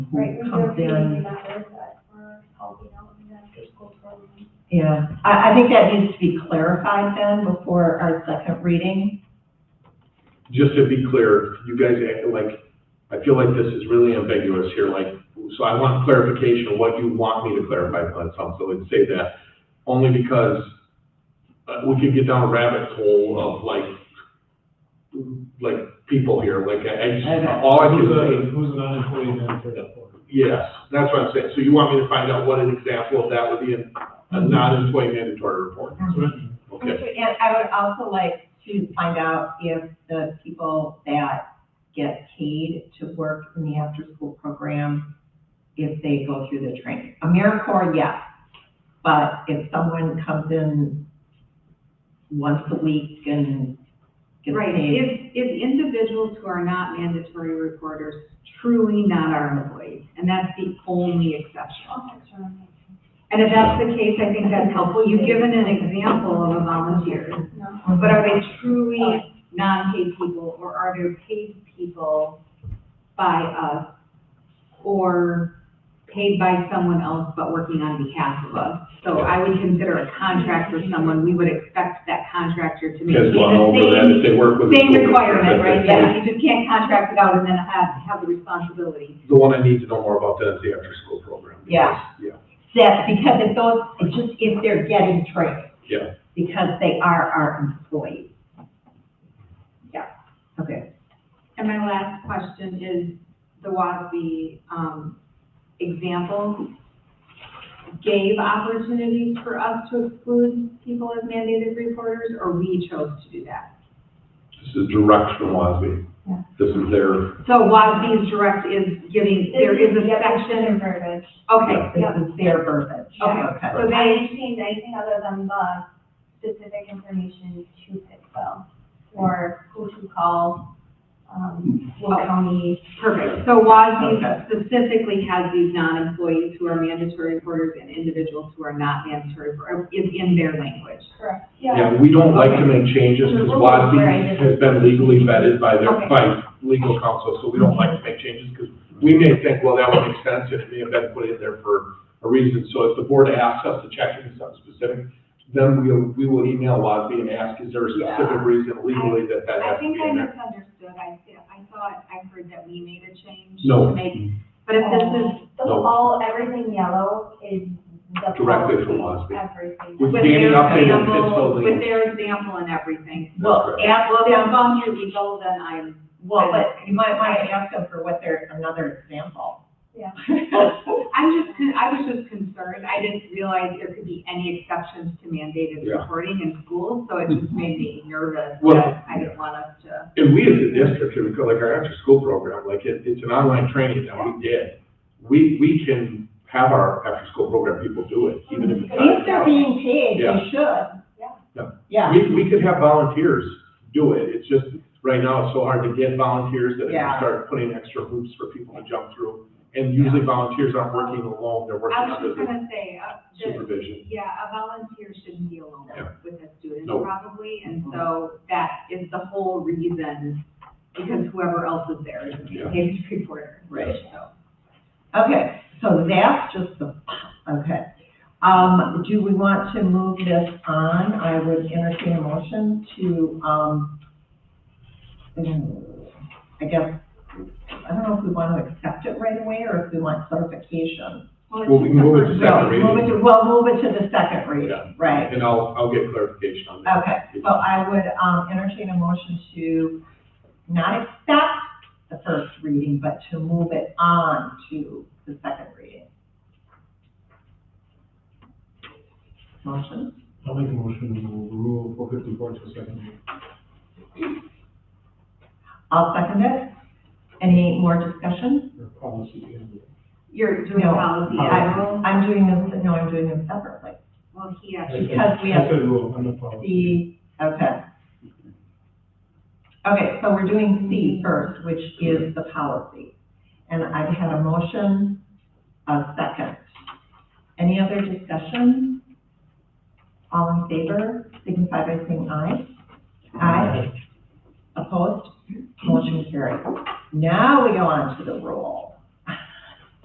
Right, we comes don't see anything in. about this, but uh, oh, we're helping out with the after-school program. Yeah, I, I think that needs to be clarified then before our second reading. just to be clear, you guys act like, I feel like this is really ambiguous here, like, so I want clarification of what you want me to clarify on some, so let's say that, only because uh, we could get down a rabbit hole of like, like people here, like, I, I just, all I Who's can a, who's an unemployed benefit for? say, yes, that's what I'm saying, so you want me to find out what an example of that would be in a non-employee mandatory report, okay? And Mm-hmm. I would also like to find out if the people that get paid to work in the after-school program, if they go through the training. AmeriCorps, yes, but if someone comes in once a week and gets Right, Mm-hmm. paid. if, if individuals who are not mandatory reporters truly not our employees, and that's the only exception. I'll picture them. And if that's the case, I think that's helpful, you've given an example of a volunteer, No. but are they truly non-paid people, or are they paid people by us? Or paid by someone else but working on behalf of us? So I would consider a contract with someone, we would expect that contractor to make Because the one over that, same if they work with. the Same school district, requirement, that's- right, yeah, you just can't contract it out and then have, have the responsibility. The one I need to know more about then is the after-school program. Yeah. Yeah, That, because if those, it's just if they're getting trained. Yeah. Because they are our employees. Yeah, okay. And my last question is, the WASB, um, example gave opportunities for us to exclude people as mandated reporters, or we chose to do that? this is direct from WASB. Yeah. This is their, So WASB's direct is giving, there is a Yeah, it's section, different verbiage. okay, This is their verbiage. Okay. Okay. So they didn't change anything other than the specific information to Pittsville, or who to call, um, what county. Perfect, so WASB Okay. specifically has these non-employees who are mandatory reporters and individuals who are not mandatory, or is in their language. Correct. yeah, we don't like to make changes because WASB has been legally vetted by their, Okay. by legal counsel, so we don't like to make changes because we may think, well, that would make sense and it may have been put in there for a reason. So if the board asks us to check into something specific, then we'll, we will email WASB and ask, is there a specific reason legally that that I has to think be I in there? misunderstood, I, I thought, I heard that we made a change No. to make, but if this is, The No. all, everything yellow is the. Directly from policy, WASB. Everything. With with Danny their updated example, Pittsfield. with their example and everything. Well, Yeah, ask well, if I'm them, going through legal, then I'm, well, but you might want to ask them for what their, another example. Yeah. I'm just, con- I was just concerned, I didn't realize there could be any exceptions to mandated Yeah. reporting in schools, so it just made me nervous. Well- that I didn't want us to. And we as a district, here, because like our after-school program, like it, it's an online training that we did. We, we can have our after-school program people do it, even if it's If they're not. being paid, Yeah. they should. Yeah. Yeah, We, we could have volunteers do it. It's just, right now, it's so hard to get volunteers that if you Yeah. start putting extra hoops for people to jump through. And usually volunteers aren't working alone, they're working I was under just the gonna say, uh, the- supervision. yeah, a volunteer shouldn't be alone Yeah. with a student No. probably, and so that is the whole reason, because whoever else is there is Yeah. a paid reporter. Right. So, okay, so that's just the, okay. Um, do we want to move this on? I would entertain a motion to, um, mm, I guess, I don't know if we want to accept it right away or if we want clarification. Well, we can move it to No, second move it reading. to, well, move it to the second Yeah. reading, right? And I'll, I'll get clarification on that. Okay, so I would, um, entertain a motion to not accept the first reading, but to move it on to the second reading. Motion, I'll make a motion to rule four fifty-four to second. I'll second it. Any more discussion? Or policy. and- You're doing No. policy, I I'm, I'm doing them, no, I'm doing them separately. well, he actually Because we have- I said rule, I'm not policy. C, okay. Okay, so we're doing C first, which is the policy. And I've had a motion, a second. Any other discussion? All in favor, signify by saying aye. Aye. Opposed? Motion carried. Now we go on to the rule.